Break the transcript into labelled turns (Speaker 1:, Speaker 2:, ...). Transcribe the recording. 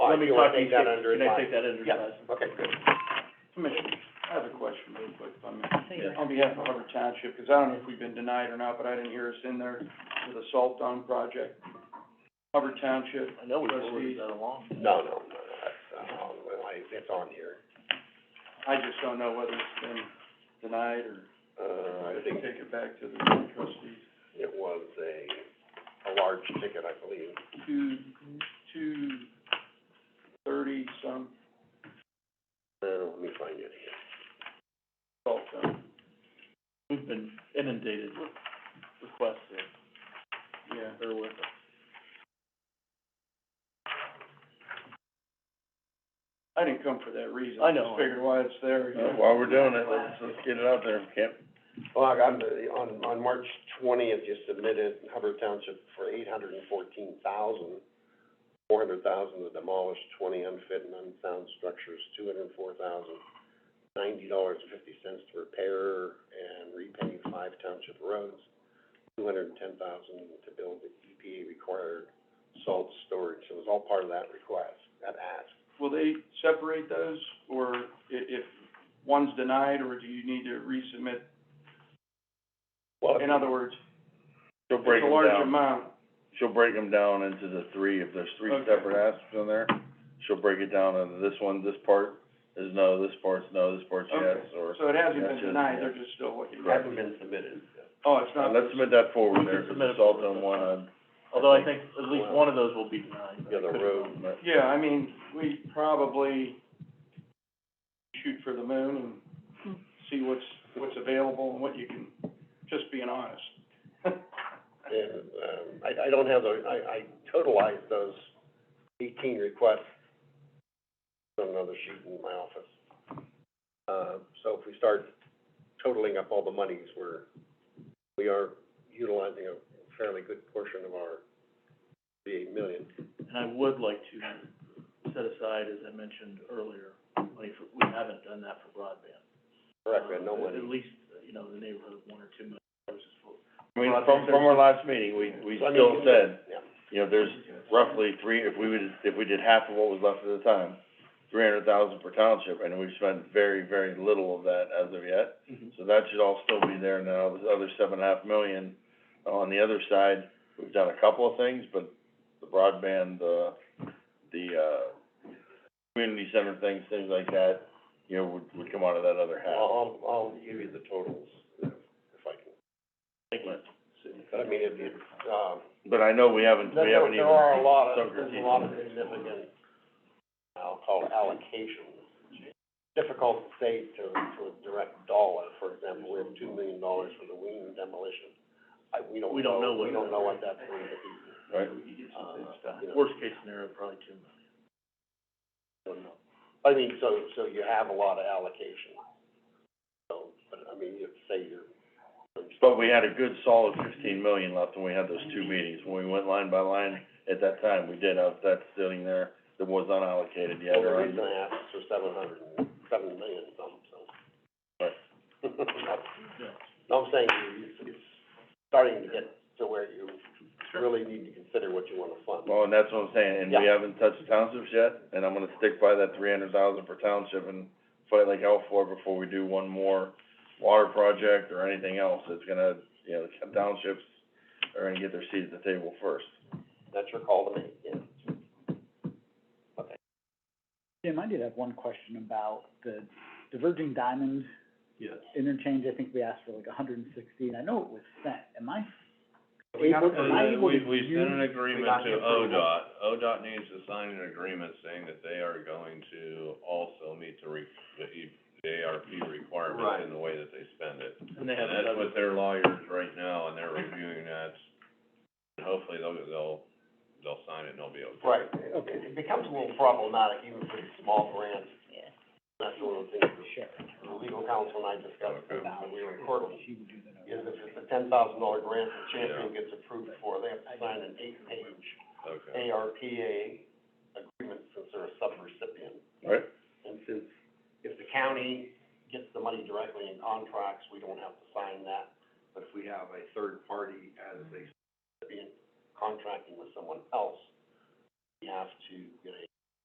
Speaker 1: Let me
Speaker 2: So
Speaker 1: go
Speaker 2: I
Speaker 1: and take
Speaker 2: can
Speaker 1: that
Speaker 2: take-
Speaker 1: under
Speaker 2: Can I
Speaker 1: advisement.
Speaker 2: take that under
Speaker 1: Yeah.
Speaker 2: advisement?
Speaker 1: Okay, good.
Speaker 3: Commissioner, I have a question real quick, if I may.
Speaker 2: Yeah.
Speaker 3: on behalf of Hubbard Township, because I don't know if we've been denied or not, but I didn't hear us in there for the salt dome project. Hubbard Township,
Speaker 2: I know we
Speaker 3: Trustees.
Speaker 2: forwarded that along.
Speaker 1: No, no, no, no, that's, uh, on the line. it's on here.
Speaker 3: I just don't know whether it's been denied or
Speaker 1: Uh, I
Speaker 3: if they
Speaker 1: think
Speaker 3: take it back to the trustees.
Speaker 1: it was a, a large ticket, I believe.
Speaker 3: Two, two thirty some
Speaker 1: Uh, let me find it here.
Speaker 3: salt dome,
Speaker 2: We've been inundated with requests, so
Speaker 3: yeah.
Speaker 2: bear with us.
Speaker 3: I didn't come for that reason.
Speaker 2: I know.
Speaker 3: Just figured why it's there, you know.
Speaker 4: Oh, While we're doing it, let's, let's get it out there, Kip.
Speaker 1: Well, I got, the- on, on March twentieth, you submitted Hubbard Township for eight hundred and fourteen thousand. Four hundred thousand to demolish twenty unfit and unsound structures, two hundred and four thousand, ninety dollars and fifty cents to repair and repave five township roads, two hundred and ten thousand to build the EPA required salt storage. So It was all part of that request, that ask.
Speaker 3: Will they separate those, or i- if one's denied, or do you need to resubmit?
Speaker 1: Well,
Speaker 3: In other words,
Speaker 4: She'll
Speaker 3: it's
Speaker 4: break
Speaker 3: a
Speaker 4: them
Speaker 3: large
Speaker 4: down,
Speaker 3: amount,
Speaker 4: she'll break them down into the three, if there's three
Speaker 3: Okay.
Speaker 4: separate asks in there, she'll break it down into this one, this part is no, this part's no, this part's yes,
Speaker 3: Okay.
Speaker 4: or.
Speaker 3: So it hasn't been
Speaker 4: Gotcha.
Speaker 3: denied, they're just still looking.
Speaker 1: Hasn't been submitted.
Speaker 3: Oh, it's
Speaker 4: Uh,
Speaker 3: not,
Speaker 4: let's submit that forward there,
Speaker 2: We can
Speaker 4: cause
Speaker 2: submit it
Speaker 4: it's all
Speaker 2: forward,
Speaker 4: done
Speaker 2: that's
Speaker 4: one
Speaker 2: fine.
Speaker 4: on,
Speaker 2: Although I think at least one of those will be denied.
Speaker 1: The other road,
Speaker 4: but
Speaker 3: yeah, I mean, we probably shoot for the moon and see what's, what's available and what you can, just being honest.
Speaker 1: And, um, I, I don't have those, I, I totalized those eighteen requests on another sheet in my office. Uh, so if we start totaling up all the monies, we're, we are utilizing a fairly good portion of our eight million.
Speaker 2: And I would like to set aside, as I mentioned earlier, money for, we haven't done that for broadband.
Speaker 1: Correct, we had no
Speaker 2: Uh, At
Speaker 1: money.
Speaker 2: least, uh, you know, in the neighborhood of one or two million dollars is for.
Speaker 4: I mean,
Speaker 2: Well, I
Speaker 4: from,
Speaker 2: think
Speaker 4: from our last meeting, we, we
Speaker 1: So, I mean,
Speaker 4: still said,
Speaker 1: Yeah,
Speaker 4: you know, there's roughly three, if we would, if we did half of what was left at the time, three hundred thousand per township, and we've spent very, very little of that as of yet.
Speaker 2: Mm-hmm.
Speaker 4: So that should all still be there now, the other seven and a half million. On the other side, we've done a couple of things, but the broadband, the, the, uh, community center things, things like that, you know, would, would come out of that other half.
Speaker 1: I'll, I'll, I'll give you the totals if I can.
Speaker 2: Thank you.
Speaker 1: But I mean, if you, um,
Speaker 4: But I know we haven't,
Speaker 1: There-
Speaker 4: we haven't even.
Speaker 1: There are a lot of,
Speaker 4: sunk our
Speaker 1: there's a
Speaker 4: teeth
Speaker 1: lot of
Speaker 4: in it.
Speaker 1: significant, I'll call it allocations. Difficult to say to, to a direct dollar, for example, we have two million dollars for the wing demolition. I, we don't know,
Speaker 2: We don't know what
Speaker 1: we don't
Speaker 2: that-
Speaker 1: know what that's going to be,
Speaker 4: Right,
Speaker 1: uh, you know,
Speaker 2: Worst case scenario, probably two million.
Speaker 1: don't know. I mean, so, so you have a lot of allocation. So, but I mean, you say you're.
Speaker 4: But we had a good solid fifteen million left when we had those two meetings, when we went line by line, at that time, we did have that sitting there that was unallocated yet,
Speaker 1: Well, the
Speaker 4: or
Speaker 1: reason I asked is for seven hundred and, seven million some, so.
Speaker 4: Right.
Speaker 2: Yeah.
Speaker 1: No, I'm saying it's, it's starting to get to where you really need to consider what you wanna fund.
Speaker 4: Well, oh, and that's what I'm saying, and we
Speaker 1: Yeah.
Speaker 4: haven't touched townships yet, and I'm gonna stick by that three hundred thousand per township and fight like hell for it before we do one more water project or anything else, it's gonna, you know, the townships are gonna get their seat at the table first.
Speaker 1: That's your call to make, yeah. Okay.
Speaker 5: Jim, I did have one question about the diverging diamond
Speaker 2: Yes.
Speaker 5: interchange, I think we asked for like a hundred and sixty, and I know it was sent, am I?
Speaker 1: Uh, We got
Speaker 5: able-
Speaker 1: it.
Speaker 5: am I able to use-
Speaker 1: We got
Speaker 6: agreement to
Speaker 1: the approval.
Speaker 6: ODOT, ODOT needs to sign an agreement saying that they are going to also meet the re, the E, the ARP
Speaker 1: Right.
Speaker 6: requirements in the way that they spend it.
Speaker 2: And they
Speaker 6: And
Speaker 2: haven't
Speaker 6: that's
Speaker 2: done
Speaker 6: with their lawyers right now, and they're reviewing that, and hopefully they'll, they'll, they'll sign it and they'll be okay.
Speaker 1: Right, okay, it becomes a little problematic even for these small grants. Yeah. That's one of the things
Speaker 5: Sure.
Speaker 1: the legal counsel and I discussed, when we were in court,
Speaker 5: She would do the
Speaker 1: is if it's a ten thousand dollar grant the champion gets approved for, they have to sign an eight page
Speaker 6: Okay.
Speaker 1: ARPA agreement since they're a sub-recipient.
Speaker 4: Right.
Speaker 1: And since if the county gets the money directly in contracts, we don't have to sign that. But if we have a third party as a recipient contracting with someone else, we have to get a